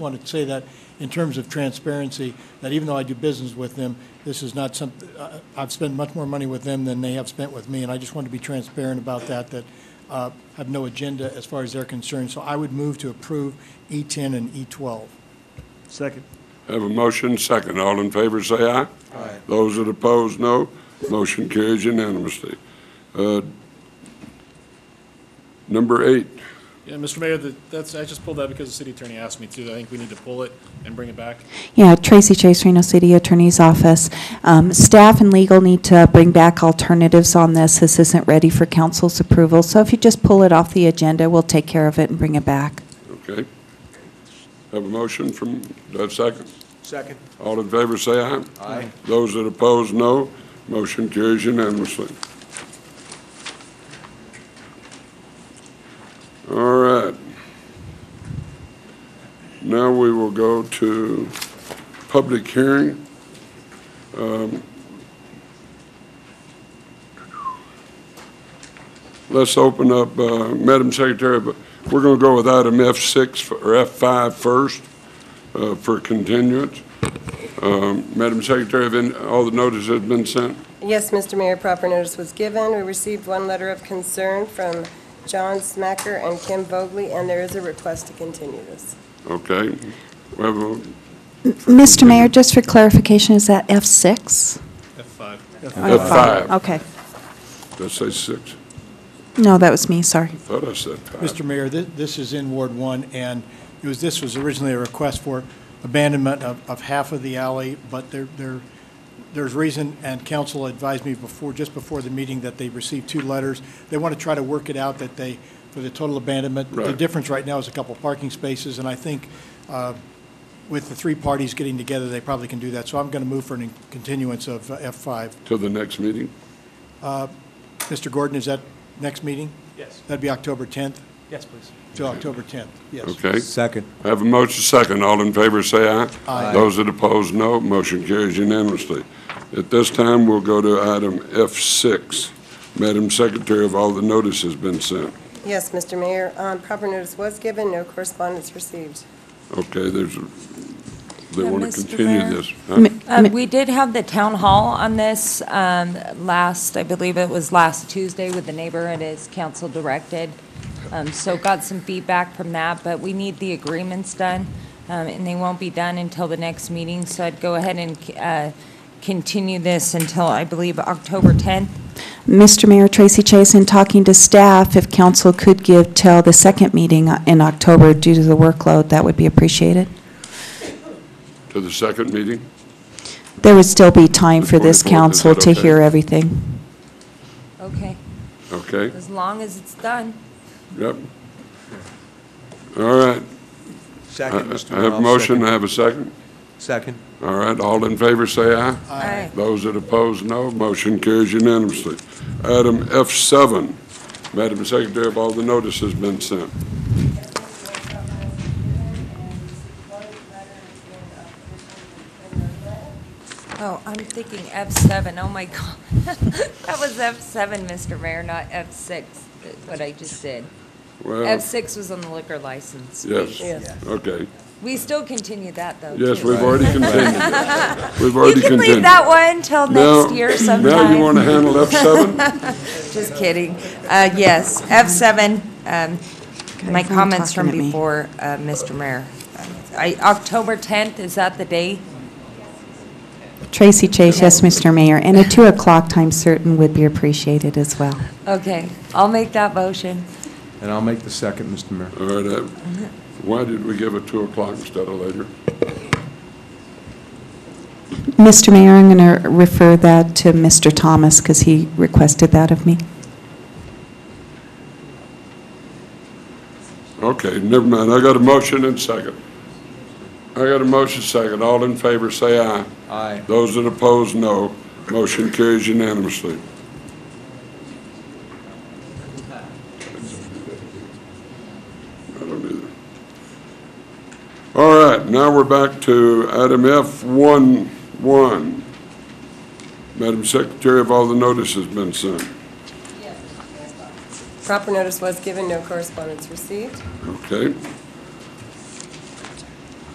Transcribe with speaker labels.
Speaker 1: wanted to say that in terms of transparency, that even though I do business with them, this is not some, uh, I've spent much more money with them than they have spent with me, and I just want to be transparent about that, that uh, have no agenda as far as they're concerned. So I would move to approve E10 and E E12.
Speaker 2: Second.
Speaker 3: Have a motion, second. All in favor, say aye. Aye. Those that oppose, no. Motion carries unanimously. Uh, Number eight,
Speaker 4: Yeah, Mr. Mayor, that- that's, I just pulled that because the city attorney asked me to. I think we need to pull it and bring it back.
Speaker 5: Yeah, Tracy Chase, Reno City Attorney's Office. Um, Staff and legal need to bring back alternatives on this. This isn't ready for council's approval. So if you just pull it off the agenda, we'll take care of it and bring it back.
Speaker 3: okay. Have a motion from, uh, second.
Speaker 2: Second.
Speaker 3: All in favor, say aye. Aye. Those that oppose, no. Motion carries unanimously. All right. Now we will go to public hearing. Um, Let's open up, uh, Madam Secretary, but we're going to go with item F6 for- or F5 first uh, for continuance. Um, Madam Secretary, have any- all the notice has been sent?
Speaker 6: Yes, Mr. Mayor, proper notice was given. We received one letter of concern from John Smacker and Kim Vogely, and there is a request to continue this.
Speaker 3: Okay. We have a-
Speaker 5: Mr. Mayor, just for clarification, is that F6?
Speaker 4: F5.
Speaker 5: Or
Speaker 3: F5.
Speaker 5: Okay.
Speaker 3: Did I say six?
Speaker 5: No, that was me, sorry.
Speaker 3: Thought I said five.
Speaker 1: Mr. Mayor, thi- this is in Ward 1, and it was, this was originally a request for abandonment of, of half of the alley, but there, there, there's reason, and council advised me before, just before the meeting, that they received two letters. They want to try to work it out that they, for the total abandonment. The
Speaker 3: Right.
Speaker 1: difference right now is a couple parking spaces, and I think uh, with the three parties getting together, they probably can do that. So I'm going to move for a continuance of uh, F5.
Speaker 3: Till the next meeting?
Speaker 1: Mr. Gordon, is that next meeting?
Speaker 2: Yes.
Speaker 1: That'd be October 10th,
Speaker 2: Yes, please.
Speaker 1: till October 10th, yes.
Speaker 3: Okay.
Speaker 7: Second.
Speaker 3: I have a motion second. All in favor, say aye.
Speaker 1: Aye.
Speaker 3: Those that oppose, no. Motion carries unanimously. At this time, we'll go to item F6. Madam Secretary, have all the notice has been sent?
Speaker 6: Yes, Mr. Mayor, um, proper notice was given, no correspondence received.
Speaker 3: Okay, there's, a- they
Speaker 8: Uh,
Speaker 3: want to
Speaker 8: Mr.
Speaker 3: continue
Speaker 8: Mayor?
Speaker 3: this. huh?
Speaker 5: Ma-
Speaker 8: Um,
Speaker 5: ma-
Speaker 8: We did have the town hall on this um, last, I believe it was last Tuesday with the neighbor. It is council directed. Um, So got some feedback from that, but we need the agreements done, um, and they won't be done until the next meeting. So I'd go ahead and uh, continue this until, I believe, October 10th.
Speaker 5: Mr. Mayor, Tracy Chase, in talking to staff, if council could give till the second meeting in October due to the workload, that would be appreciated.
Speaker 3: To the second meeting?
Speaker 5: There would still be time for
Speaker 3: The 24th, is
Speaker 5: this
Speaker 3: that
Speaker 5: council to
Speaker 3: okay?
Speaker 5: hear everything.
Speaker 8: Okay,
Speaker 3: Okay.
Speaker 8: as long as it's done.
Speaker 3: Yep. All right. I
Speaker 7: Second, Mr.
Speaker 3: I
Speaker 7: Mayor.
Speaker 3: have a
Speaker 7: I'll
Speaker 3: motion, Uh,
Speaker 7: second.
Speaker 3: I have a second.
Speaker 7: Second.
Speaker 3: All right, all in favor, say aye.
Speaker 8: Aye.
Speaker 3: Those that oppose, no. Motion carries unanimously. Item F7, Madam Secretary, have all the notices been sent?
Speaker 8: Oh, I'm thinking F7, oh my God. That was F7, Mr. Mayor, not F6, what I just did.
Speaker 3: Well,
Speaker 8: F6 was on the liquor license.
Speaker 3: Uh, yes,
Speaker 6: Yes.
Speaker 3: okay.
Speaker 8: We still continue that, though.
Speaker 3: Yes,
Speaker 8: too.
Speaker 3: we've already continued. it. We've
Speaker 8: You
Speaker 3: already
Speaker 8: can
Speaker 3: continued.
Speaker 8: leave that one till
Speaker 3: Now-
Speaker 8: next year
Speaker 3: Now you want
Speaker 8: sometime.
Speaker 3: to handle F7?
Speaker 8: Just kidding. Uh, Yes, F7, um, my
Speaker 5: someone
Speaker 8: comments from
Speaker 5: talking at me.
Speaker 8: before, uh, Mr. Mayor. I- October 10th, is that the date?
Speaker 5: Tracy Chase, yes, Mr. Mayor, and a 2 o'clock time certain would be appreciated as well.
Speaker 8: Okay, I'll make that motion.
Speaker 7: And I'll make the second, Mr. Mayor.
Speaker 3: All right, uh, why did we give it 2 o'clock instead of later?
Speaker 5: Mr. Mayor, I'm going to refer that to Mr. Thomas because he requested that of me.
Speaker 3: Okay, never mind. I got a motion and second. I got a motion second. All in favor, say aye.
Speaker 7: Aye.
Speaker 3: Those that oppose, no. Motion carries unanimously. I don't either. All right, now we're back to item F11. Madam Secretary, have all the notices been sent?
Speaker 6: Proper notice was given, no correspondence received.
Speaker 3: Okay.